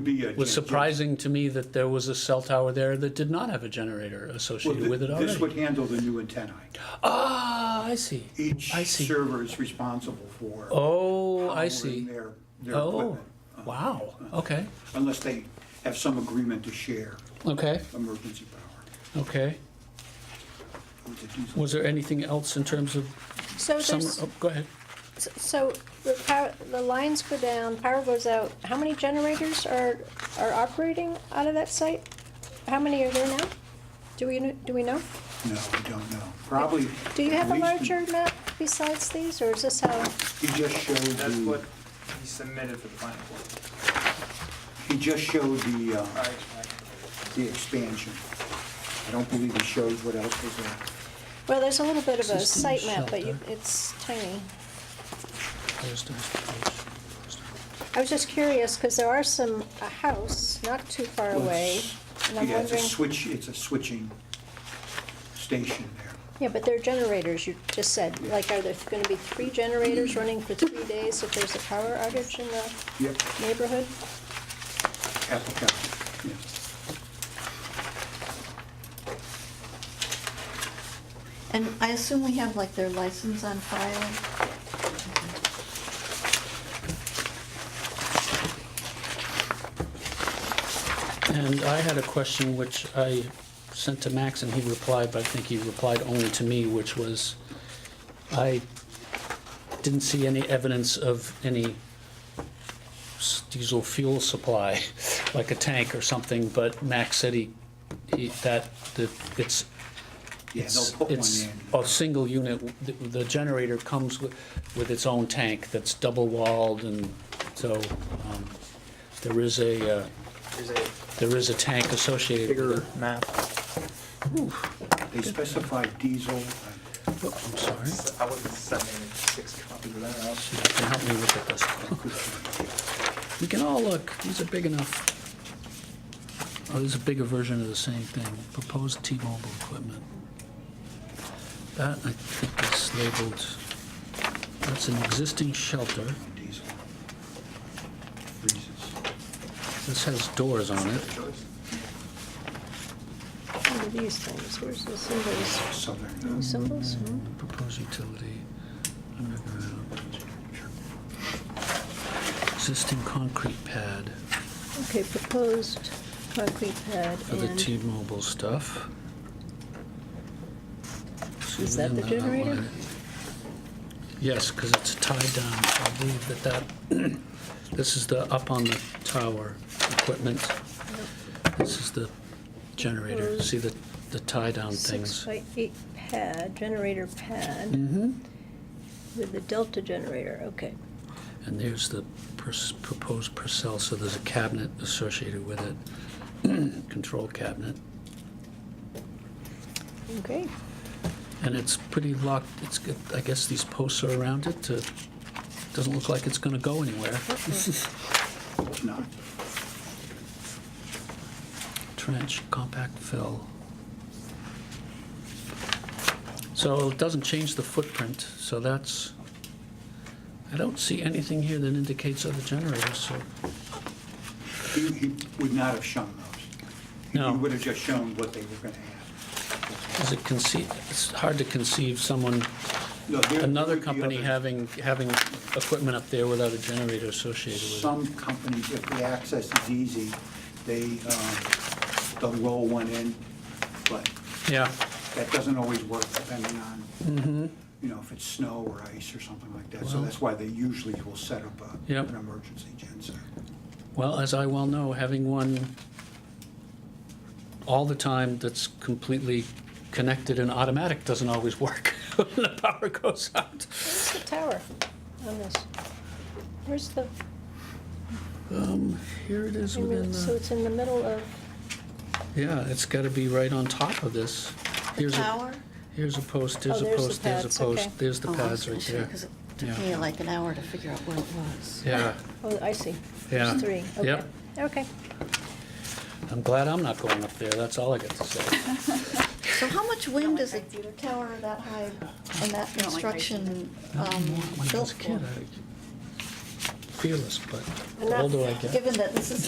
be a. It was surprising to me that there was a cell tower there that did not have a generator Well, associated thi- with it This would already. handle the new antennae. Ah, I see. Each I see. server is responsible for. Oh, I powering see. Their, their Oh, equipment. wow. Okay, Unless they have some agreement to share okay, emergency power. okay. with the diesel. Was there anything else in terms of So summer? there's, Oh, go ahead. so the power, the lines go down, power goes out. How many generators are, are operating out of that site? How many are there now? Do we, kn- do we know? No, we don't know. Probably. Do you at have a least- larger map besides these, or is this how? He just showed That's what the, he submitted for the planning board. he just showed the, All uh, right, I the expansion. I don't believe he showed what else was there. Well, there's a little bit of a Existing site map, but you, shelter. it's tiny. Close to this page. I was just curious, because there are some, a house not too far Well, away, it's- and I'm Yeah, it's a wondering, switch, it's a switching station there. yeah, but they're generators, you just said, like, are there gonna be three Mm. generators running for three days if there's a power outage in the Yep, neighborhood? Apple County, yes. And I assume we have like their license on file? And I had a question which I sent to Max and he replied, but I think he replied only to me, which was, I didn't see any evidence of any s- diesel fuel supply, like a tank or something, but Max said he, he, that, that it's, Yeah, it's, they'll put one it's in. a single unit, w- the, the generator comes with, with its own tank that's double walled and so, um, there is a, uh, There's a there is a tank associated with it. map. They specify diesel. uh, I Oh, I'm sorry. I wasn't sending six copies of that out. You can help me look at this. could find it. We can all look. These are big enough. Oh, this is a bigger version of the same thing. Proposed T-Mobile equipment. That, I think, is labeled, that's an existing shelter. Diesel. Freezes. This has doors on it. What are these things? Where's the symbols? Southern. Symbols? Hmm? Proposed utility, underground, existing concrete pad Okay, proposed concrete pad for the and, T-Mobile stuff. See Is if we that can the outline generator? it. Yes, because it's tied down, I believe that that, this is the up on the tower equipment. This is the generator, see the, the tie-down things. six by eight pad, generator pad Mm-hmm. with the delta generator, okay. And there's the pers- proposed Purcell, so there's a cabinet associated with it, control cabinet. Okay, And it's pretty locked, it's, got- I guess these posts are around it to, doesn't look like it's gonna go anywhere. It's not. Trench, compact fill. So it doesn't change the footprint, so that's, I don't see anything here that indicates other generators, so. He, he would not have shown those. No. He would have just shown what they were going to have. Is it conceive, it's hard to conceive someone, No, there- there another would be company other- having, having equipment up there without a generator associated with it. Some companies, if the access is easy, they, um, they'll roll one in, but Yeah, that doesn't always work depending on, you know, if it's snow or ice or something like that. So Mm-hmm. Well- that's why they usually will set up a- Yep. an emergency genset. well, as I well know, having one all the time that's completely connected and automatic doesn't always work when the power goes out. where's the tower on this? Where's the, Um, here it is within so the, it's in the middle of, yeah, it's gotta be right on top of this. Here's a, Tower? here's a post, here's Oh, a there's the post, there's a pads, okay. post, there's the Oh, I was pads gonna right say, there. 'cause it Took Yeah. me like an hour to figure out where it was. Yeah, oh, I see. Yeah. There's three, okay. Yep. Okay, I'm glad I'm not going up there, that's all I got to say. So how much wind is a tower that high and that construction um, When I built was a for? kid, I fearless, but And the that- older I get. Given that this is